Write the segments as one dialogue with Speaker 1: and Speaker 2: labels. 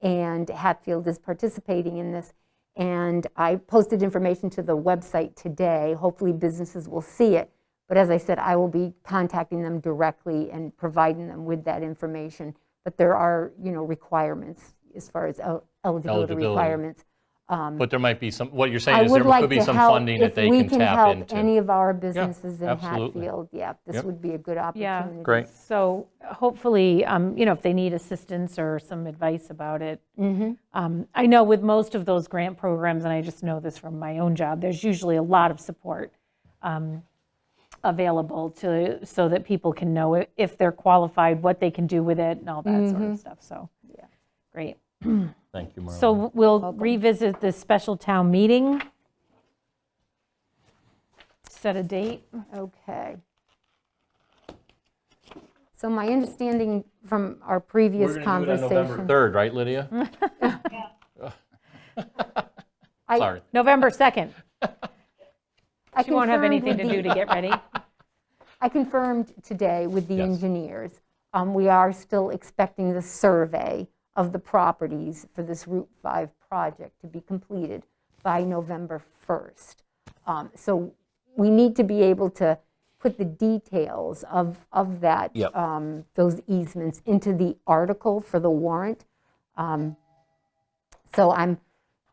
Speaker 1: and Hatfield is participating in this. And I posted information to the website today. Hopefully, businesses will see it. But as I said, I will be contacting them directly and providing them with that information. But there are, you know, requirements as far as el- eligibility
Speaker 2: Eligibility.
Speaker 1: requirements.
Speaker 2: But there might be some, what you're
Speaker 1: I
Speaker 2: saying is there
Speaker 1: would
Speaker 2: could
Speaker 1: like
Speaker 2: be
Speaker 1: to
Speaker 2: some
Speaker 1: help,
Speaker 2: funding that
Speaker 1: if
Speaker 2: they
Speaker 1: we
Speaker 2: can
Speaker 1: can
Speaker 2: tap
Speaker 1: help
Speaker 2: into.
Speaker 1: any of our businesses in
Speaker 2: absolutely.
Speaker 1: Hatfield, yeah, this
Speaker 2: Yep.
Speaker 1: would be a good
Speaker 3: Yeah.
Speaker 1: opportunity.
Speaker 2: Great.
Speaker 3: So hopefully, um, you know, if they need assistance or some advice about it. Um, I know with most of those grant programs, and I just know this from my own job, there's usually a lot of support um, available to, so that people can know i- if they're qualified, what they can do with it and all that sort of stuff, so. Great.
Speaker 2: Thank you, Marlene.
Speaker 3: So we'll revisit this special town meeting. Set a date.
Speaker 1: Okay. So my understanding from our previous
Speaker 2: We're going to do it on
Speaker 1: conversation.
Speaker 2: November 3rd, right, Lydia?
Speaker 1: I-
Speaker 2: Sorry.
Speaker 3: November 2nd.
Speaker 1: I
Speaker 3: She won't have
Speaker 1: confirmed with
Speaker 3: anything to do
Speaker 1: the-
Speaker 3: to get ready.
Speaker 1: I confirmed today with the
Speaker 2: Yes.
Speaker 1: engineers. Um, We are still expecting the survey of the properties for this Route 5 project to be completed by November 1st. Um, So we need to be able to put the details of, of that,
Speaker 2: Yep.
Speaker 1: um, those easements into the article for the warrant. Um, So I'm,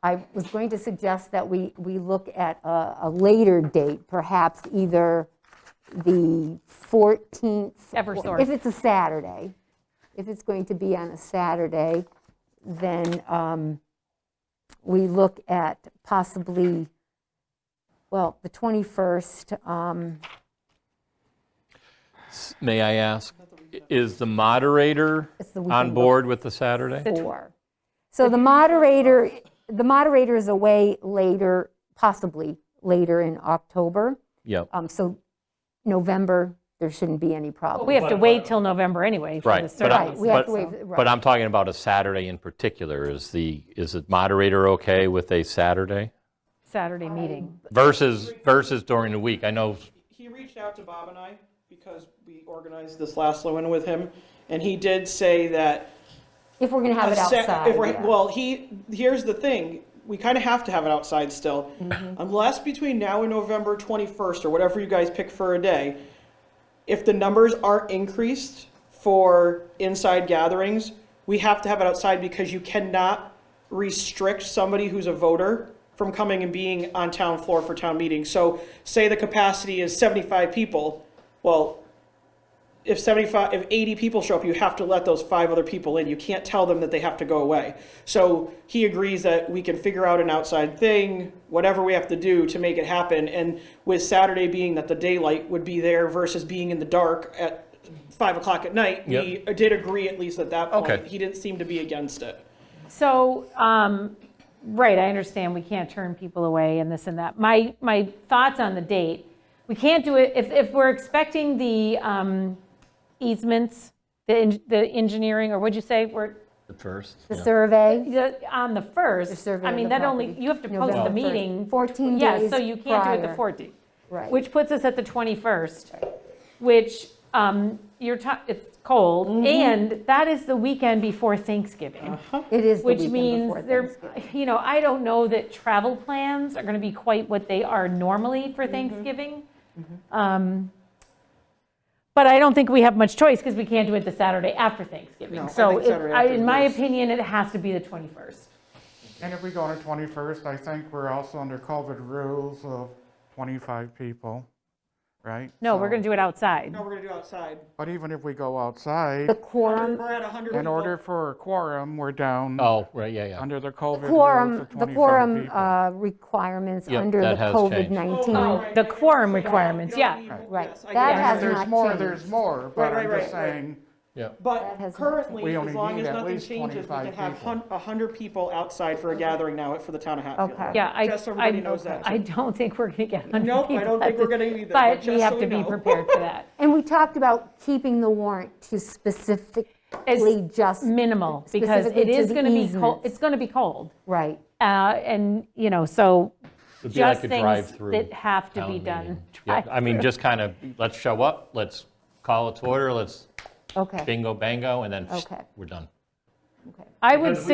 Speaker 1: I was going to suggest that we, we look at a, a later date, perhaps either the 14th.
Speaker 3: Eversource.
Speaker 1: If it's a Saturday, if it's going to be on a Saturday, then um, we look at possibly, well, the 21st, um,
Speaker 2: May I ask, is the moderator
Speaker 1: It's the weekend
Speaker 2: on board with the Saturday?
Speaker 1: four. So the moderator, the moderator is away later, possibly later in October.
Speaker 2: Yep,
Speaker 1: Um, So November, there shouldn't be any problem.
Speaker 3: We have to wait till November anyway for
Speaker 2: right.
Speaker 3: the
Speaker 2: but I-
Speaker 1: Right, we have
Speaker 3: survey.
Speaker 1: to
Speaker 2: but-
Speaker 1: waive- right.
Speaker 2: But I'm talking about a Saturday in particular. Is the, is the moderator okay with a Saturday
Speaker 3: Saturday meeting.
Speaker 2: versus, versus during the week? I know,
Speaker 4: he reached out to Bob and I because we organized this last one with him, and he did say that.
Speaker 1: If we're going to have it
Speaker 4: a sec-
Speaker 1: outside,
Speaker 4: if we're-
Speaker 1: yeah.
Speaker 4: Well, he, here's the thing, we kind of have to have it outside still.
Speaker 1: Mm-hmm.
Speaker 4: Unless between now and November 21st, or whatever you guys pick for a day, if the numbers aren't increased for inside gatherings, we have to have it outside because you cannot restrict somebody who's a voter from coming and being on town floor for town meetings. So say the capacity is 75 people, well, if 75 if 80 people show up you have to let those five other people in you can't tell them that they have to go away so he agrees that we can figure out an outside thing whatever we have to do to make it happen and with saturday being that the daylight would be there versus being in the dark at five o'clock at night
Speaker 2: Yep.
Speaker 4: we did agree at least at that point
Speaker 2: Okay.
Speaker 4: he didn't seem to be against it
Speaker 3: So, um, right, I understand we can't turn people away and this and that. My, my thoughts on the date, we can't do it, if, if we're expecting the um, easements, the, en- the engineering, or what'd you say, we're,
Speaker 2: the first.
Speaker 1: The survey,
Speaker 3: the- on the
Speaker 1: The
Speaker 3: 1st,
Speaker 1: survey
Speaker 3: I
Speaker 1: of
Speaker 3: mean,
Speaker 1: the
Speaker 3: that only,
Speaker 1: property,
Speaker 3: you have to post
Speaker 1: November
Speaker 3: the
Speaker 1: 1st,
Speaker 3: meeting.
Speaker 1: 14
Speaker 3: Yeah,
Speaker 1: days
Speaker 3: so you can't do it the
Speaker 1: prior.
Speaker 3: 14th.
Speaker 1: Right.
Speaker 3: Which puts us at the 21st, which, um, you're, ta- it's
Speaker 1: Mm-hmm.
Speaker 3: cold, and that is the weekend before Thanksgiving.
Speaker 1: it is the
Speaker 3: Which
Speaker 1: weekend
Speaker 3: means
Speaker 1: before
Speaker 3: there,
Speaker 1: Thanksgiving.
Speaker 3: you know, I don't know that travel plans are going to be quite what they are normally for
Speaker 4: Mm-hmm.
Speaker 3: Thanksgiving. Um, But I don't think we have much choice because we can't do it the Saturday after
Speaker 4: No,
Speaker 3: Thanksgiving.
Speaker 4: I
Speaker 3: So
Speaker 4: think
Speaker 3: it-
Speaker 4: Saturday
Speaker 3: I-
Speaker 4: after
Speaker 3: in my
Speaker 4: is-
Speaker 3: opinion, it has to be the 21st.
Speaker 5: And if we go to 21st, I think we're also under COVID rules of 25 people, right?
Speaker 3: No, we're going to do it outside.
Speaker 4: now we're going to do outside
Speaker 5: But even if we go
Speaker 1: The
Speaker 5: outside,
Speaker 1: quorum,
Speaker 4: we're at 100
Speaker 5: in
Speaker 4: people.
Speaker 5: order for a quorum, we're down
Speaker 2: Oh, right, yeah, yeah.
Speaker 5: under the COVID rules
Speaker 1: quorum,
Speaker 5: of
Speaker 1: the
Speaker 5: 25
Speaker 1: quorum
Speaker 5: people.
Speaker 1: uh, requirements
Speaker 2: Yep,
Speaker 1: under the
Speaker 2: that has changed.
Speaker 4: Oh,
Speaker 1: COVID-19.
Speaker 4: right,
Speaker 3: the
Speaker 4: right, right.
Speaker 3: quorum
Speaker 4: So you don't-
Speaker 3: requirements,
Speaker 4: you don't
Speaker 3: yeah.
Speaker 4: need-
Speaker 1: Right.
Speaker 4: yes, I get
Speaker 1: That
Speaker 4: it.
Speaker 5: And if
Speaker 1: has
Speaker 5: There's
Speaker 1: not
Speaker 5: more,
Speaker 1: changed.
Speaker 5: there's more,
Speaker 4: Right,
Speaker 5: but
Speaker 4: right,
Speaker 5: I'm just
Speaker 4: right, right.
Speaker 5: saying,
Speaker 2: Yeah.
Speaker 1: That
Speaker 4: But
Speaker 1: has not
Speaker 4: currently,
Speaker 5: We
Speaker 4: as
Speaker 5: only
Speaker 4: long
Speaker 5: need
Speaker 4: as
Speaker 5: at
Speaker 4: nothing
Speaker 5: least
Speaker 4: changes, we can
Speaker 5: 25
Speaker 4: have
Speaker 5: people.
Speaker 4: hun- 100 people outside for a gathering now at- for the town of Hatfield.
Speaker 1: Okay.
Speaker 3: Yeah, I,
Speaker 4: Just so everybody
Speaker 3: I,
Speaker 4: knows that.
Speaker 3: I don't think we're going to get 100 people.
Speaker 4: Nope, I don't think
Speaker 3: at
Speaker 4: we're
Speaker 3: this-
Speaker 4: gonna either, but
Speaker 3: But we
Speaker 4: just
Speaker 3: have
Speaker 4: so
Speaker 3: to
Speaker 4: we
Speaker 3: be
Speaker 4: know.
Speaker 3: prepared for that.
Speaker 1: And we talked about keeping the warrant to specifically just,
Speaker 3: Minimal, because
Speaker 1: Specifically
Speaker 3: it
Speaker 1: to
Speaker 3: is
Speaker 1: the
Speaker 3: going to be cold,
Speaker 1: easements.
Speaker 3: it's going to be cold.
Speaker 1: right,
Speaker 3: Uh, And, you know, so
Speaker 2: It'd be
Speaker 3: just
Speaker 2: like a
Speaker 3: things
Speaker 2: drive-through.
Speaker 3: that have to
Speaker 2: town
Speaker 3: be
Speaker 2: meeting.
Speaker 3: done.
Speaker 2: Yeah, I mean, just kind of, let's show up, let's call it to order, let's
Speaker 1: okay.
Speaker 2: bingo, bango, and then
Speaker 1: Okay.
Speaker 2: we're done.
Speaker 3: I would
Speaker 2: Because we-